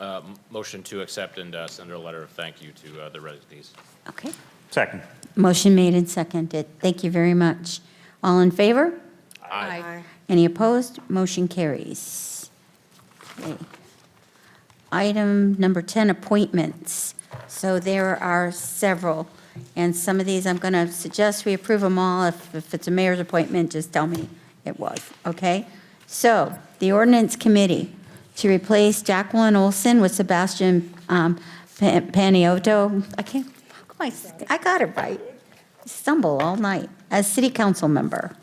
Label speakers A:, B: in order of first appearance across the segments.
A: uh, m- motion to accept and uh, send a letter of thank you to uh, the resignees.
B: Okay.
C: Second.
B: Motion made and seconded. Thank you very much. All in favor?
D: Aye.
B: Any opposed? Motion carries. Okay. Item number 10, appointments. So there are several, and some of these, I'm going to suggest we approve them all. If if it's a mayor's appointment, just tell me it was, okay? So, the ordinance committee, to replace Jacqueline Olson with Sebastian um, Pa- Paniotto. I can't, how come I, s- I got it right. Stumble all night, as city council member.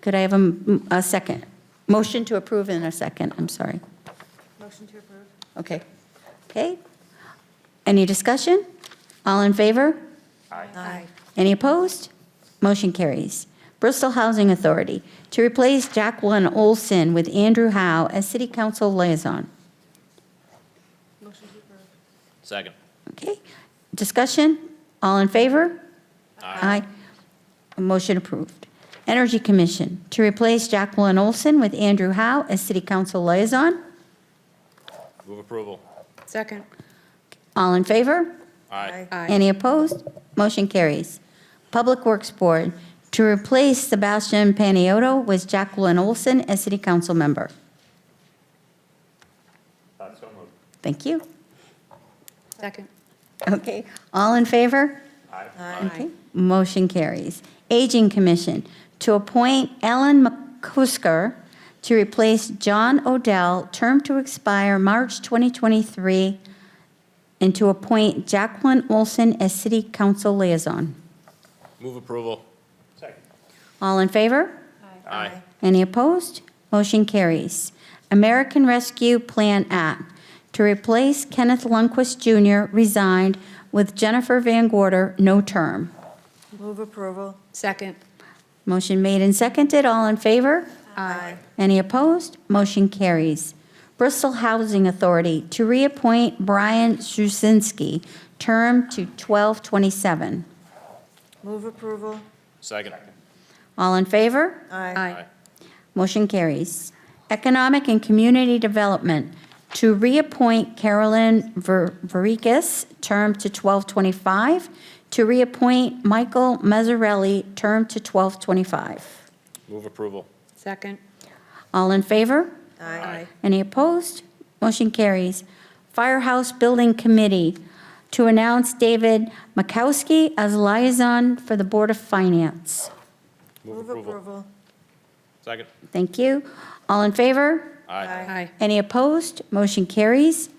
B: Could I have a, m- a second? Motion to approve in a second, I'm sorry.
D: Motion to approve.
B: Okay. Okay. Any discussion? All in favor?
D: Aye.
B: Any opposed? Motion carries. Bristol Housing Authority, to replace Jacqueline Olson with Andrew Howe as city council liaison.
D: Motion to approve.
A: Second.
B: Okay. Discussion? All in favor?
A: Aye.
B: Motion approved. Energy Commission, to replace Jacqueline Olson with Andrew Howe as city council liaison.
A: Move approval.
D: Second.
B: All in favor?
A: Aye.
B: Any opposed? Motion carries. Public Works Board, to replace Sebastian Paniotto with Jacqueline Olson as city council member. Thank you.
D: Second.
B: Okay, all in favor? Okay, motion carries. Aging Commission, to appoint Ellen McCusker to replace John Odell, term to expire March 2023, and to appoint Jacqueline Olson as city council liaison.
A: Move approval.
B: All in favor?
A: Aye.
B: Any opposed? Motion carries. American Rescue Plan Act, to replace Kenneth Lundquist Jr., resigned, with Jennifer Van Gorder, no term.
D: Move approval. Second.
B: Motion made and seconded, all in favor?
D: Aye.
B: Any opposed? Motion carries. Bristol Housing Authority, to reappoint Brian Szusinski, term to 1227.
D: Move approval.
A: Second.
B: All in favor?
D: Aye.
B: Motion carries. Economic and Community Development, to reappoint Carolyn Ver- Verikis, term to 1225, to reappoint Michael Mazzarelli, term to 1225.
A: Move approval.
D: Second.
B: All in favor?
D: Aye.
B: Any opposed? Motion carries. Firehouse Building Committee, to announce David Makowski as liaison for the Board of Finance.
A: Move approval. Second.
B: Thank you. All in favor?
A: Aye.
B: Any opposed? Motion carries.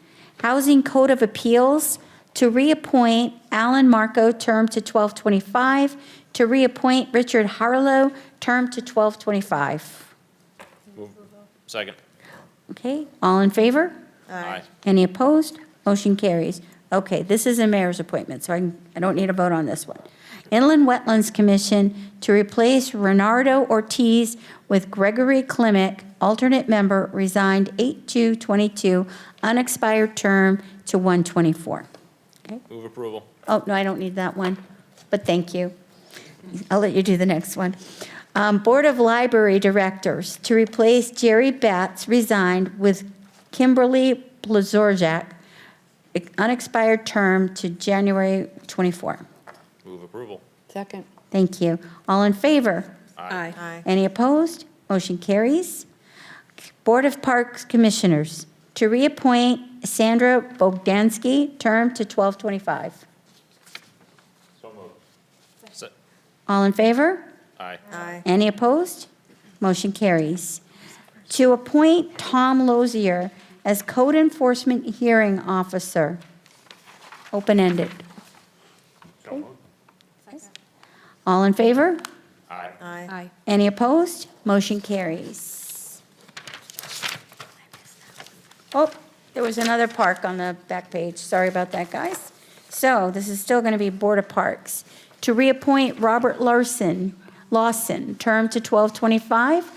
B: Housing Code of Appeals to reappoint Alan Marco, term to 1225, to reappoint Richard Harlow, term to 1225.
A: Move. Second.
B: Okay, all in favor?
A: Aye.
B: Any opposed? Motion carries. Okay, this is a mayor's appointment, so I can- I don't need a vote on this one. Inland Wetlands Commission to replace Renardo Ortiz with Gregory Klimick, alternate member, resigned 8/2/22, unexpired term to 1/24. Okay.
A: Move approval.
B: Oh, no, I don't need that one, but thank you. I'll let you do the next one. Um, Board of Library Directors, to replace Jerry Betts, resigned, with Kimberly Blazorjak, unexpired term to January 24.
A: Move approval.
D: Second.
B: Thank you. All in favor?
A: Aye.
D: Aye.
B: Any opposed? Motion carries. Board of Parks Commissioners, to reappoint Sandra Bogdansky, term to 1225.
A: Se-
B: All in favor?
A: Aye.
D: Aye.
B: Any opposed? Motion carries. To appoint Tom Lozier as Code Enforcement Hearing Officer, open-ended. Okay. All in favor?
A: Aye.
D: Aye.
B: Any opposed? Motion carries. Oh, there was another park on the back page. Sorry about that, guys. So this is still going to be Board of Parks. To reappoint Robert Larson, Lawson, term to 1225.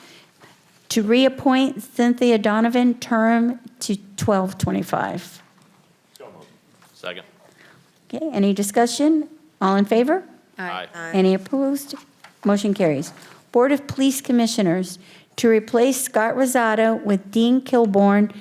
B: To reappoint Cynthia Donovan, term to 1225.
A: Second.
B: Okay, any discussion? All in favor?
A: Aye.
B: Any opposed? Motion carries. Board of Police Commissioners, to replace Scott Rosado with Dean Kilborn